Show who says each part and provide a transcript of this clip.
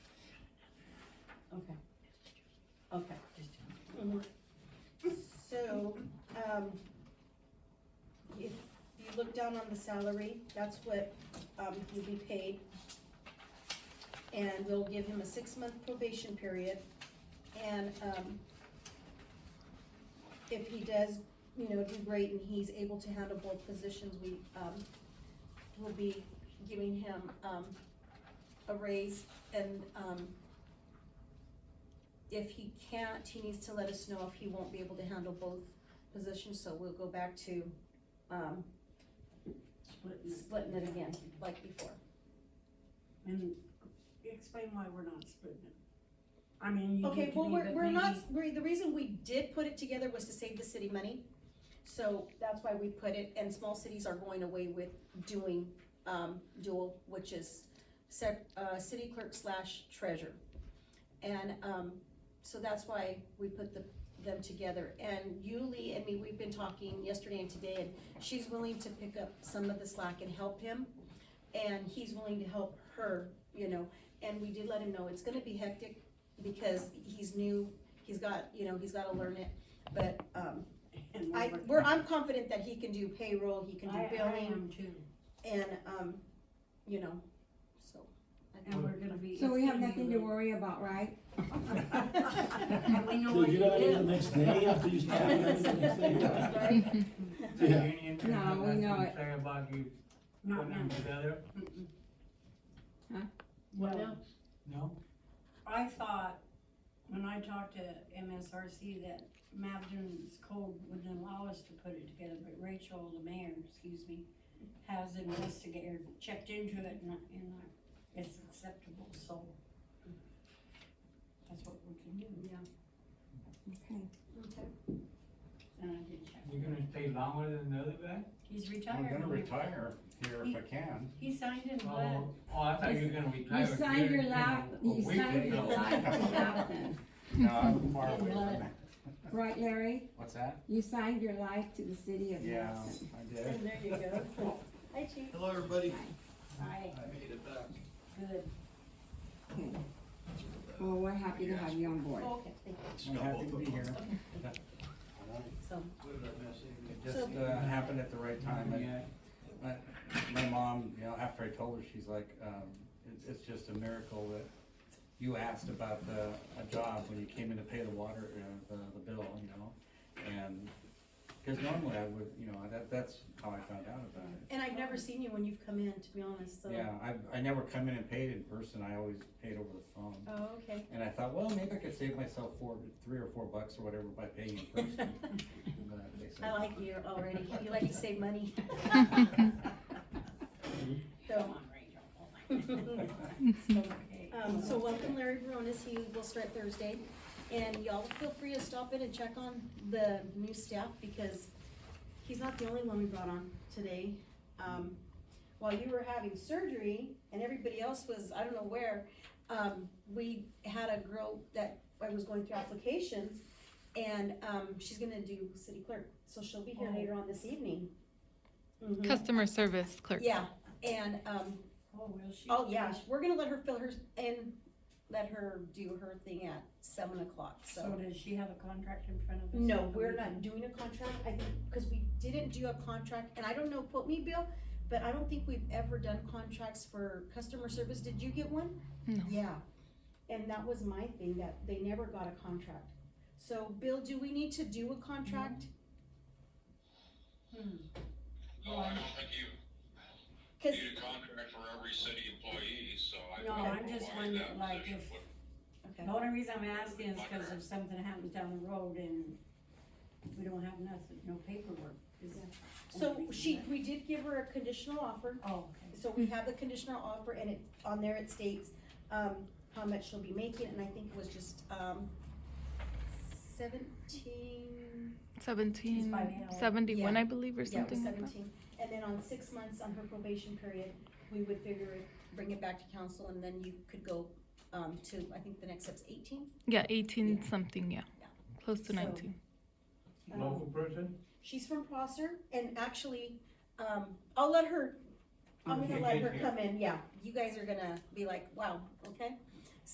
Speaker 1: Okay. So, um, if you look down on the salary, that's what, um, you'll be paid. And we'll give him a six-month probation period, and, um, if he does, you know, do great and he's able to handle both positions, we, um, will be giving him, um, a raise and, um, if he can't, he needs to let us know if he won't be able to handle both positions, so we'll go back to, um, splitting it again, like before.
Speaker 2: And explain why we're not splitting it. I mean, you
Speaker 1: Okay,
Speaker 2: get to
Speaker 1: well,
Speaker 2: be
Speaker 1: we're,
Speaker 2: the
Speaker 1: we're not,
Speaker 2: lady-
Speaker 1: we the reason we did put it together was to save the city money. So that's why we put it, and small cities are going away with doing, um, dual, which is sec, uh, city clerk slash treasurer. And, um, so that's why we put the, them together. And Yuli and me, we've been talking yesterday and today, and she's willing to pick up some of the slack and help him. And he's willing to help her, you know, and we did let him know it's gonna be hectic, because he's new, he's got, you know, he's gotta learn it. But, um,
Speaker 2: and
Speaker 1: I,
Speaker 2: we're-
Speaker 1: we're, I'm confident that he can do payroll, he can
Speaker 2: I-
Speaker 1: do
Speaker 2: I
Speaker 1: billing,
Speaker 2: am too,
Speaker 1: and, um, you know, so. I
Speaker 2: and
Speaker 1: think-
Speaker 2: we're gonna be.
Speaker 3: So we have
Speaker 2: it's gonna
Speaker 3: nothing
Speaker 2: be
Speaker 3: to
Speaker 2: late.
Speaker 3: worry about, right?
Speaker 2: And we know
Speaker 4: So
Speaker 2: where
Speaker 4: you
Speaker 2: you
Speaker 4: gotta leave the
Speaker 2: live.
Speaker 4: next day after you stop and everything, you say,
Speaker 1: Right?
Speaker 5: The
Speaker 4: Yeah.
Speaker 5: union
Speaker 3: No,
Speaker 5: have
Speaker 3: we
Speaker 5: nothing
Speaker 3: know
Speaker 5: to
Speaker 3: it.
Speaker 5: Say about you
Speaker 2: Not
Speaker 5: putting them
Speaker 2: now.
Speaker 5: together,
Speaker 2: Mm-mm.
Speaker 3: Huh?
Speaker 2: Well,
Speaker 5: no?
Speaker 2: I thought, when I talked to MSRC, that Mabden's code wouldn't allow us to put it together, but Rachel, the mayor, excuse me, has investigated, checked into it, and, and I- it's acceptable, so that's what we can do,
Speaker 1: Yeah.
Speaker 3: Okay.
Speaker 1: Okay.
Speaker 2: and I did check.
Speaker 5: You're gonna stay longer than the other guy?
Speaker 2: He's
Speaker 6: I'm
Speaker 2: retired,
Speaker 6: gonna retire here if I can.
Speaker 2: he signed in blood.
Speaker 5: Oh, oh, I thought you were gonna retire.
Speaker 3: You signed
Speaker 5: here
Speaker 3: your
Speaker 5: in a
Speaker 3: life, you
Speaker 5: week or
Speaker 3: signed your
Speaker 5: so.
Speaker 3: life to Lapland,
Speaker 6: No, I'm far away
Speaker 2: Blood.
Speaker 6: from that.
Speaker 3: right Larry?
Speaker 6: What's that?
Speaker 3: You signed your life to the city of
Speaker 6: Yeah,
Speaker 3: Lapland.
Speaker 6: I did.
Speaker 1: there you go. Hi, Chief.
Speaker 7: Hello, everybody.
Speaker 2: Aye,
Speaker 7: I made it back.
Speaker 2: good.
Speaker 3: Okay. Well, we're happy to have you on board.
Speaker 1: Okay, thank you.
Speaker 7: Just
Speaker 6: I'm
Speaker 7: got
Speaker 6: happy
Speaker 7: both
Speaker 6: to
Speaker 7: of
Speaker 6: be
Speaker 7: them.
Speaker 6: here.
Speaker 1: So,
Speaker 7: What did I miss?
Speaker 6: It
Speaker 1: So-
Speaker 6: just, uh, happened at the right time. And
Speaker 5: Yeah.
Speaker 6: My, my mom, you know, after I told her, she's like, um, it's, it's just a miracle that you asked about the, a job when you came in to pay the water, uh, the, the bill, you know? And, cause normally I would, you know, that, that's how I found out about it.
Speaker 1: and I've never seen you when you've come in, to be honest, so.
Speaker 6: Yeah, I, I never come in and paid in person, I always paid over the phone.
Speaker 1: Oh, okay.
Speaker 6: And I thought, well, maybe I could save myself four, three or four bucks or whatever by paying in person. But they said-
Speaker 1: I like you already, you like to save money. So,
Speaker 2: Come on, Rachel. Oh my God. Okay.
Speaker 1: Um, so welcome Larry Veronis, he will start Thursday, and y'all feel free to stop in and check on the new staff, because he's not the only one we brought on today. Um, while you were having surgery, and everybody else was, I don't know where, um, we had a girl that I was going through applications, and, um, she's gonna do city clerk, so she'll be here later on this evening. Mhm.
Speaker 8: Customer service clerk.
Speaker 1: Yeah, and, um,
Speaker 2: Oh, will she?
Speaker 1: Oh, yeah, sh- we're gonna let her fill hers and let her do her thing at seven o'clock,
Speaker 2: So
Speaker 1: so.
Speaker 2: does she have a contract in front of us?
Speaker 1: No, we're not doing a contract, I think, cause we didn't do a contract, and I don't know, quote me, Bill, but I don't think we've ever done contracts for customer service, did you get one?
Speaker 8: No.
Speaker 1: Yeah, and that was my thing, that they never got a contract. So, Bill, do we need to do a contract?
Speaker 2: Hmm.
Speaker 9: No, I don't think you
Speaker 1: Cause,
Speaker 9: need a contract for every city employee, so I
Speaker 2: No,
Speaker 9: don't know
Speaker 2: I'm just
Speaker 9: why
Speaker 2: wondering,
Speaker 9: that
Speaker 2: like,
Speaker 9: position
Speaker 2: if-
Speaker 9: would
Speaker 1: okay,
Speaker 2: The only reason I'm asking is because if something happens down the road and we don't have nothing, no paperwork, is that?
Speaker 1: so she, we did give her a conditional offer.
Speaker 2: Oh, okay.
Speaker 1: So we have the conditional offer and it, on there it states, um, how much she'll be making, and I think it was just, um, seventeen,
Speaker 8: Seventeen
Speaker 2: by now.
Speaker 8: seventy-one,
Speaker 1: Yeah.
Speaker 8: I believe, or
Speaker 1: yeah, it was
Speaker 8: something like that.
Speaker 1: seventeen. And then on six months on her probation period, we would figure it, bring it back to council, and then you could go, um, to, I think the next step's eighteen.
Speaker 8: Yeah, eighteen something, yeah.
Speaker 1: Yeah.
Speaker 8: Close
Speaker 1: So-
Speaker 8: to nineteen.
Speaker 3: Oh.
Speaker 5: Local person?
Speaker 1: She's from Prosser, and actually, um, I'll let her, I'm gonna let her come in, yeah. You guys are gonna be like, wow, okay?